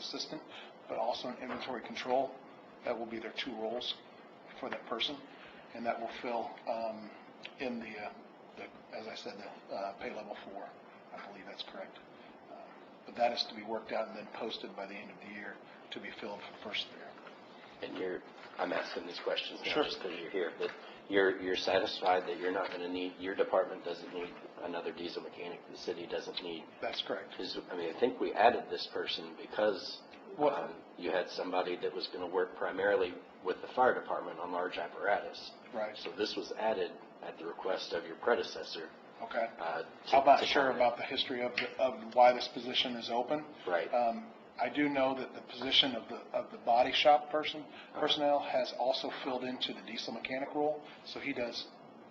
assistant, but also in inventory control. That will be their two roles for that person, and that will fill um, in the, uh, the- as I said, the uh, pay level four. I believe that's correct. Uh, But that is to be worked out and then posted by the end of the year to be filled for the first year. And you're, I'm asking these questions now Sure. just because you're here, but you're, you're satisfied that you're not going to need, your department doesn't need another diesel mechanic, the city doesn't need, That's correct. because, I mean, I think we added this person because What- um, you had somebody that was going to work primarily with the fire department on large apparatus. Right. So this was added at the request of your predecessor. Okay. uh, to- I'm not to sure kinda- about the history of, the- of why this position is open. Right. Um, I do know that the position of the, of the body shop person, personnel has also filled into the diesel mechanic role, so he does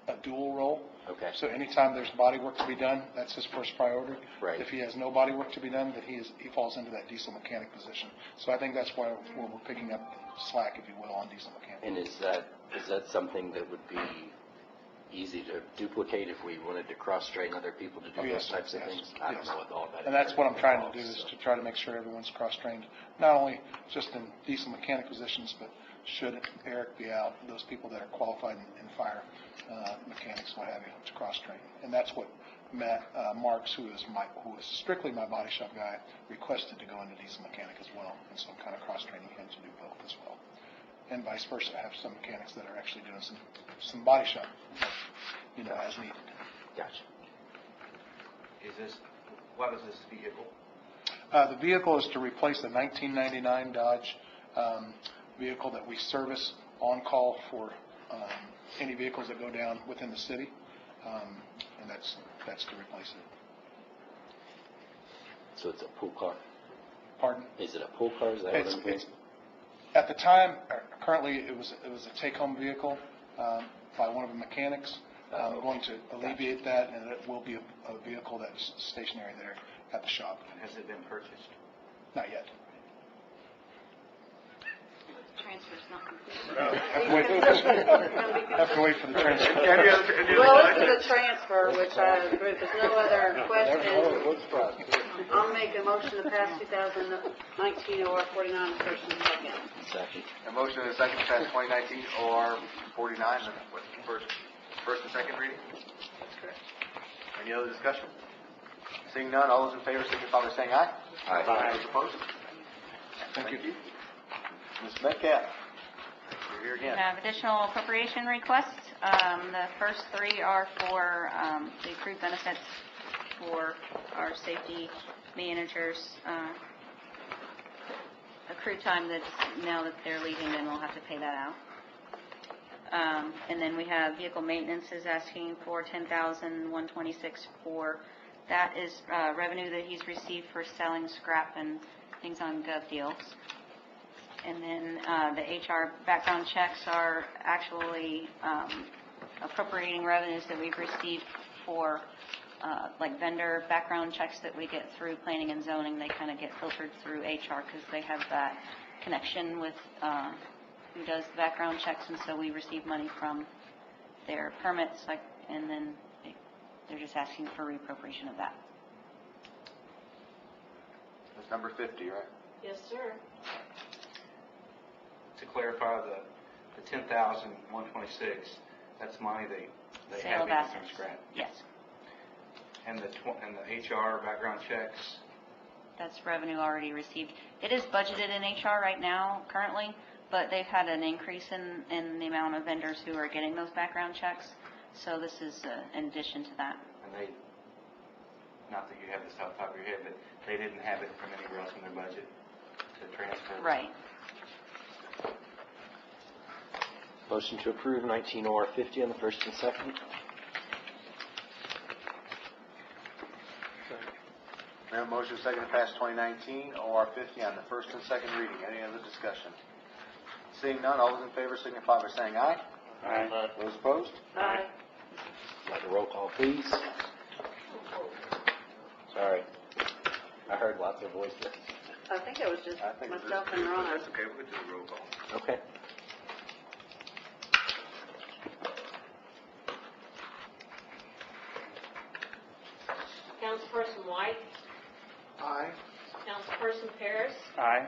a dual role. Okay. So anytime there's body work to be done, that's his first priority. Right. If he has no body work to be done, then he is, he falls into that diesel mechanic position. So I think that's why we're we're picking up slack, if you will, on diesel mechanic. And is that, is that something that would be easy to duplicate if we wanted to cross-train other people to Oh, do yes, those types of yes, things? I don't yes. know what all that. And that's what I'm trying to do, involves, is so. to try to make sure everyone's cross-trained, not only just in diesel mechanic positions, but should Eric be out, those people that are qualified in- in fire uh, mechanics, what have you, to cross-train. And that's what Matt uh, Marks, who is my, who is strictly my body shop guy, requested to go into diesel mechanic as well. And so I'm kind of cross-training him to do both as well. And vice versa, I have some mechanics that are actually doing some, some body shop, work, you know, as needed. Gotcha. Is this, what is this vehicle? Uh, The vehicle is to replace the 1999 Dodge um, vehicle that we service on-call for um, any vehicles that go down within the city, Um, and that's, that's to replace it. So it's a pool car. Pardon? Is it a pool car? Is that what It's- I'm hearing? it's- At the time, or currently, it was, it was a take-home vehicle um, by one of the mechanics. I'm going to alleviate that, and it will be a a vehicle that's stationary there at the shop. Has it been purchased? Not yet. Transfer's not complete. Have to wait for the- have to wait for the transfer. Well, this is a transfer, which I agree, if there's no other questions, I'll make a motion to pass 2019 OR 49 on first and second. Second. A motion and a second to pass 2019 OR 49 on what, first, first and second reading. That's correct. Any other discussion? Seeing none, all those in favor signify by saying aye. Aye. Those opposed? Thank you. Ms. Metcalf, you're here We again. have additional appropriation requests. Um, The first three are for um, the accrued benefits for our safety managers, uh, accrued time that's, now that they're leaving, then we'll have to pay that out. Um, And then we have vehicle maintenance is asking for $10,126 for, that is uh, revenue that he's received for selling scrap and things on gov deals. And then uh, the HR background checks are actually um, appropriating revenues that we've received for, uh, like vendor background checks that we get through planning and zoning. They kind of get filtered through HR because they have that connection with uh, who does the background checks. And so we receive money from their permits, like, and then they- they're just asking for reappropriation of that. That's number 50, right? Yes, sir. To clarify, the, the ten thousand, one twenty-six, that's money they, they Sale have in of from assets. scrap. Yes, And the tw, and the HR background checks, That's revenue already received. It is budgeted in HR right now currently, but they've had an increase in, in the amount of vendors who are getting those background checks. So this is uh, in addition to that. and they, not that you have this off the top of your head, but they didn't have it from anywhere else in their budget to transfer. Right. Motion to approve 19 OR 50 on the first and second? We have a motion and second to pass 2019 OR 50 on the first and second reading. Any other discussion? Seeing none, all those in favor signify by saying aye. Aye. Those opposed? Aye. Like a roll call, please. Sorry. I heard lots of voices. I think it was just I think it's- myself and Ron. That's okay, we can do a roll call. Okay. Councilperson White, Aye. Councilperson Paris, Aye.